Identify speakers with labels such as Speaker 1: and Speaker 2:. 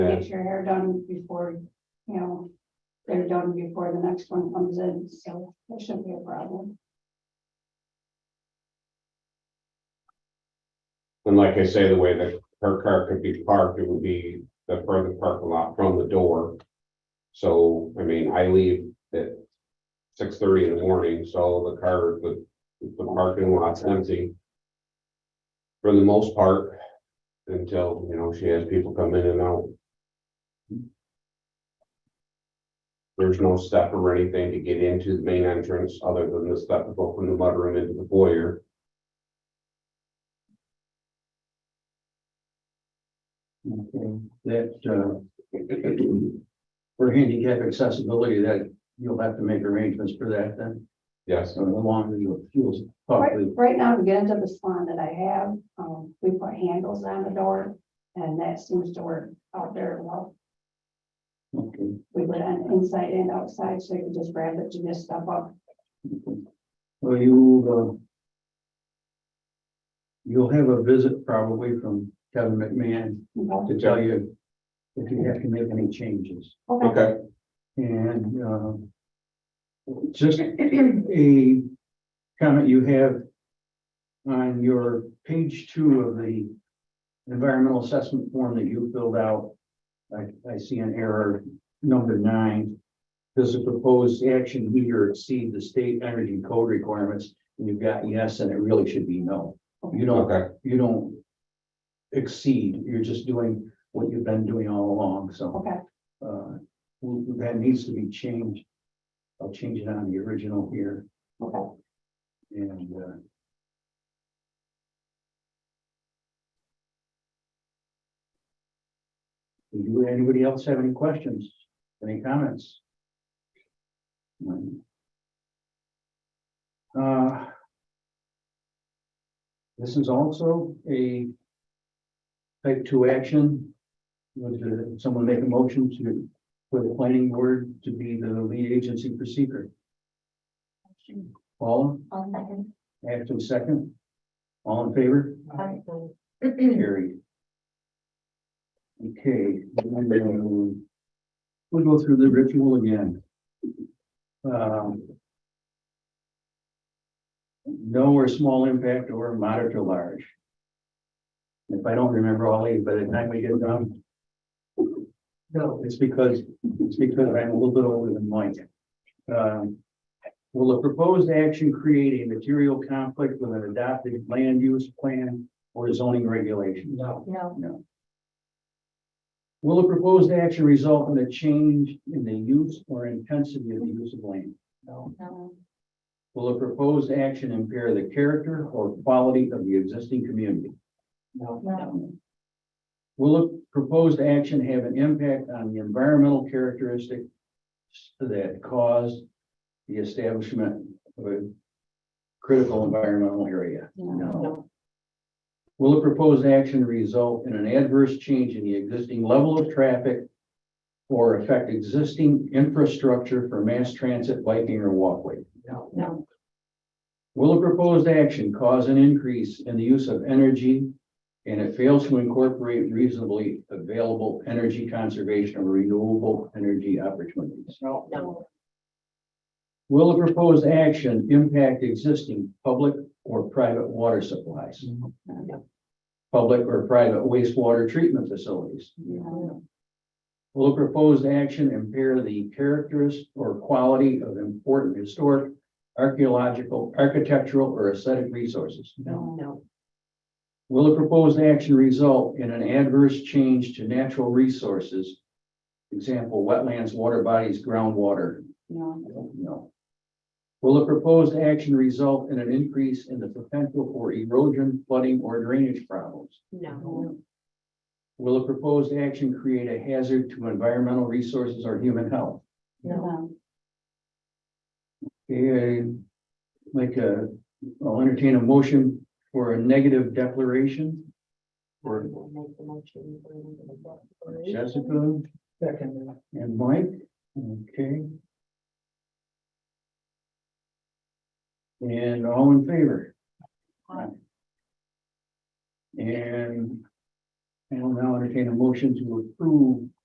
Speaker 1: Get your hair done before, you know, they're done before the next one comes in, so there shouldn't be a problem.
Speaker 2: And like I say, the way that her car could be parked, it would be the further parking lot from the door. So, I mean, I leave at six thirty in the morning, so the car, the, the parking lot's empty. For the most part, until, you know, she has people come in and out. There's no step or anything to get into the main entrance, other than the step to go from the mudroom into the foyer.
Speaker 3: Okay, that, uh, for handicap accessibility, that you'll have to make arrangements for that then,
Speaker 2: Yes,
Speaker 3: so the longer you fuels.
Speaker 1: Right,
Speaker 3: probably-
Speaker 1: right now, to get into the salon that I have, um, we put handles on the door, and that seems to work out very well.
Speaker 3: Okay.
Speaker 1: We put on inside and outside, so you can just grab it, you just step up.
Speaker 3: Well, you, uh, you'll have a visit probably from Kevin McMahon
Speaker 1: you know.
Speaker 3: to tell you if you have to make any changes.
Speaker 1: Okay,
Speaker 2: okay,
Speaker 3: And, uh, just a comment you have on your page two of the environmental assessment form that you filled out. I, I see an error, number nine. Does the proposed action meet or exceed the state energy code requirements? And you've got yes, and it really should be no. You don't,
Speaker 2: okay,
Speaker 3: you don't exceed, you're just doing what you've been doing all along, so
Speaker 1: okay,
Speaker 3: uh, w- w- that needs to be changed. I'll change it on the original here
Speaker 1: okay,
Speaker 3: and, uh. Do you- anybody else have any questions, any comments? None. Uh. This is also a type two action. Would uh, someone make a motion to, for the planning board to be the lead agency for secret? Paula?
Speaker 4: I'll second.
Speaker 3: After the second. All in favor? Carried. Okay. then, uh, We'll go through the ritual again. Um, No or small impact or moderate or large. If I don't remember all these by the time we get done. No, it's because, it's because I'm a little bit older than Mike. Um, Will the proposed action create a material conflict with an adopted land use plan or zoning regulation? No.
Speaker 4: No,
Speaker 3: No. Will the proposed action result in a change in the use or intensity of the use of land? No.
Speaker 4: no,
Speaker 3: Will the proposed action impair the character or quality of the existing community? No.
Speaker 4: no,
Speaker 3: Will the proposed action have an impact on the environmental characteristics that caused the establishment of a critical environmental area?
Speaker 4: no,
Speaker 3: Will the proposed action result in an adverse change in the existing level of traffic or affect existing infrastructure for mass transit, biking, or walkway?
Speaker 4: no,
Speaker 3: Will the proposed action cause an increase in the use of energy and it fails to incorporate reasonably available energy conservation or renewable energy opportunities?
Speaker 4: no,
Speaker 3: Will the proposed action impact existing public or private water supplies?
Speaker 4: Mm-hmm. no,
Speaker 3: Public or private wastewater treatment facilities?
Speaker 4: no,
Speaker 3: Will the proposed action impair the characters or quality of important historic, archaeological, architectural, or aesthetic resources?
Speaker 4: no,
Speaker 3: Will the proposed action result in an adverse change to natural resources? Example, wetlands, water bodies, groundwater?
Speaker 4: no,
Speaker 3: No. Will the proposed action result in an increase in the potential for erosion, flooding, or drainage problems?
Speaker 4: no,
Speaker 3: Will the proposed action create a hazard to environmental resources or human health?
Speaker 4: no,
Speaker 3: Yeah, like a, I'll entertain a motion for a negative declaration. For Jessica. Second. And Mike, okay. And all in favor?
Speaker 4: Aye.
Speaker 3: And I will now entertain a motion to approve